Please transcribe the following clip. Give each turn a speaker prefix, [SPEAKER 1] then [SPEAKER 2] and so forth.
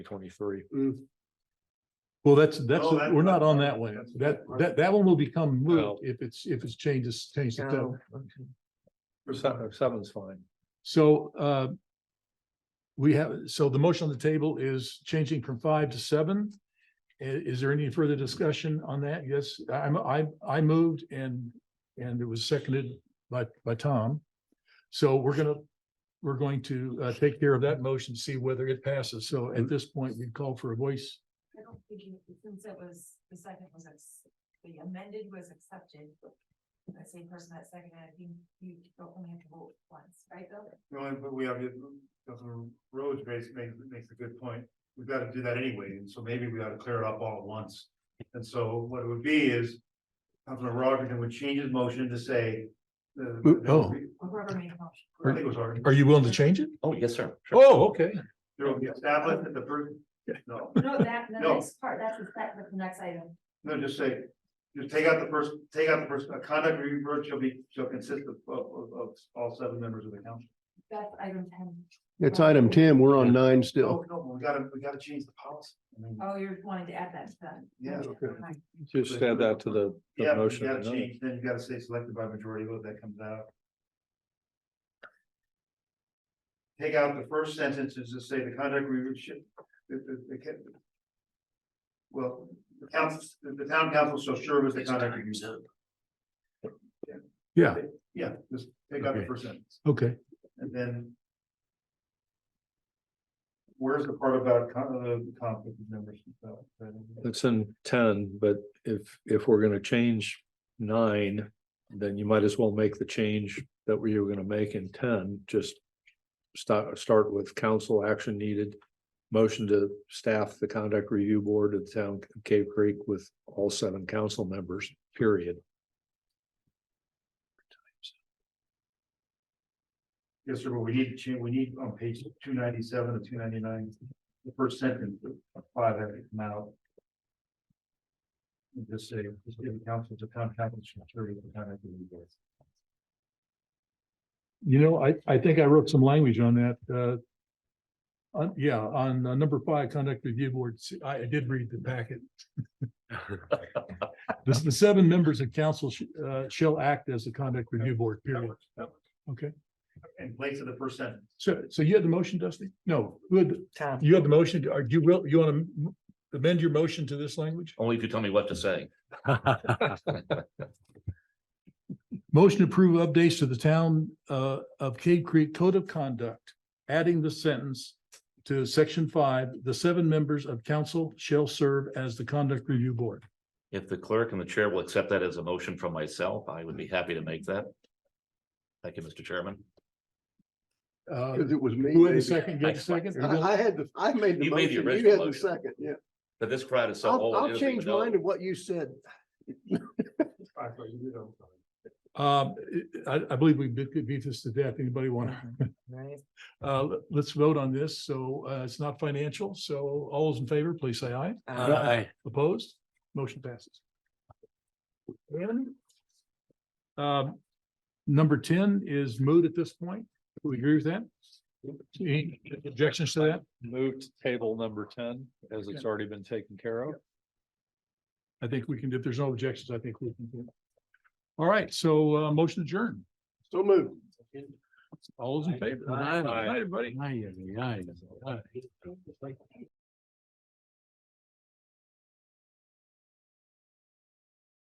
[SPEAKER 1] twenty-three.
[SPEAKER 2] Well, that's, that's,
[SPEAKER 3] No, that-
[SPEAKER 2] we're not on
[SPEAKER 3] that's-
[SPEAKER 2] that one.
[SPEAKER 3] that's-
[SPEAKER 2] That, that, that one will become
[SPEAKER 1] No.
[SPEAKER 2] moot if it's, if it's changes, changed to
[SPEAKER 1] No,
[SPEAKER 2] town.
[SPEAKER 1] okay. Seven, oh, seven's fine.
[SPEAKER 2] So, uh, we have, so the motion on the table is changing from five to seven. I- is there any further discussion on that? Yes, I'm, I, I moved and, and it was seconded by, by Tom. So we're gonna, we're going to, uh, take care of that motion, see whether it passes. So at this point, we call for a voice.
[SPEAKER 4] I don't think, you- since it was, the second was, ex- the amended was accepted. The same person that seconded, I think you don't only have to vote once, right, Bill?
[SPEAKER 3] The only, but we have, Councilman Rhodes makes, makes, makes a good point. We've got to do that anyway, and so maybe we ought to clear it up all at once. And so what it would be is, Councilman Rogerton would change his motion to say. the-
[SPEAKER 2] Oh.
[SPEAKER 4] Or Whoever made the motion.
[SPEAKER 3] I think it was Roger.
[SPEAKER 2] Are you willing to change it?
[SPEAKER 5] Oh, yes, sir. Sure.
[SPEAKER 2] Oh, okay.
[SPEAKER 3] There will be established that the person, no,
[SPEAKER 4] No, that, the
[SPEAKER 3] No.
[SPEAKER 4] next part, that's the sec- that's the next item.
[SPEAKER 3] no, just say, just take out the first, take out the first, a conduct review board shall be, shall consist of, of, of, of all seven members of the council.
[SPEAKER 4] That's item ten.
[SPEAKER 6] It's item ten, we're on nine still.
[SPEAKER 3] No, no, we gotta, we gotta change the policy. I mean,
[SPEAKER 4] Oh, you're wanting to add that to that.
[SPEAKER 3] Yeah,
[SPEAKER 4] Okay.
[SPEAKER 1] Just add that to the, the
[SPEAKER 3] Yeah, but you
[SPEAKER 1] motion.
[SPEAKER 3] gotta
[SPEAKER 1] and
[SPEAKER 3] change, then you gotta say selected by majority vote, that comes out. Take out the first sentence and just say the conduct review should, the, the, the. ca- Well, the council, the the town council shall serve as the conduct review.
[SPEAKER 2] Yeah,
[SPEAKER 3] Yeah, just take out the
[SPEAKER 2] Okay.
[SPEAKER 3] first sentence,
[SPEAKER 2] okay.
[SPEAKER 3] and then. Where's the part about con, the conflict of members?
[SPEAKER 1] It's in ten, but if, if we're gonna change nine, then you might as well make the change that we were gonna make in ten, just start, start with council action needed, motion to staff the conduct review board of the town of Cave Creek with all seven council members, period.
[SPEAKER 3] Yes, sir, but we need to change, we need on page two ninety-seven and two ninety-nine, the first sentence, of five that come out. And Just say, just give the council to town council, security, the town activity boards.
[SPEAKER 2] You know, I, I think I wrote some language on that, uh. On, yeah, on uh, number five, conduct review board, See, I, I did read the packet. The, the seven members of council, sh- uh, shall act as the conduct review board, period. Okay,
[SPEAKER 3] In place of the first sentence,
[SPEAKER 2] so, so you had the motion, Dusty? No, who had the-
[SPEAKER 4] Tom.
[SPEAKER 2] you had the motion, are you will, you want to amend your motion to this language?
[SPEAKER 5] Only if you tell me what to say.
[SPEAKER 2] Motion to approve updates to the town uh of Cave Creek Code of Conduct, adding the sentence to section five, the seven members of council shall serve as the conduct review board.
[SPEAKER 5] If the clerk and the chair will accept that as a motion from myself, I would be happy to make that. Thank you, Mr. Chairman.
[SPEAKER 2] Uh,
[SPEAKER 6] Cause it was me.
[SPEAKER 2] who had the
[SPEAKER 6] baby.
[SPEAKER 2] second, you had the second?
[SPEAKER 6] I, I had the, I made the
[SPEAKER 5] You made the
[SPEAKER 6] motion, you
[SPEAKER 5] original
[SPEAKER 6] had the
[SPEAKER 5] motion.
[SPEAKER 6] second, yeah.
[SPEAKER 5] But this crowd is so oh,
[SPEAKER 6] I'll,
[SPEAKER 5] old.
[SPEAKER 6] I'll
[SPEAKER 5] it'll be
[SPEAKER 6] change
[SPEAKER 5] no-
[SPEAKER 6] mine to what you said.
[SPEAKER 3] I thought you did, I'm sorry.
[SPEAKER 2] Um, I I believe we beat beat this to death. Anybody want to? Uh, let- let's vote on this. So uh, it's not financial. So all those in favor, please say aye. Aye. Opposed? Motion passes. Um, number ten is moot at this point. Do we agree with that? Any objections to that?
[SPEAKER 1] Move to table number ten, as it's already been taken care of.
[SPEAKER 2] I think we can, if there's no objections, I think we can. do it. All right, so uh, motion adjourned.
[SPEAKER 6] So moved.
[SPEAKER 2] All those in favor?
[SPEAKER 1] Aye.
[SPEAKER 2] Aye, everybody.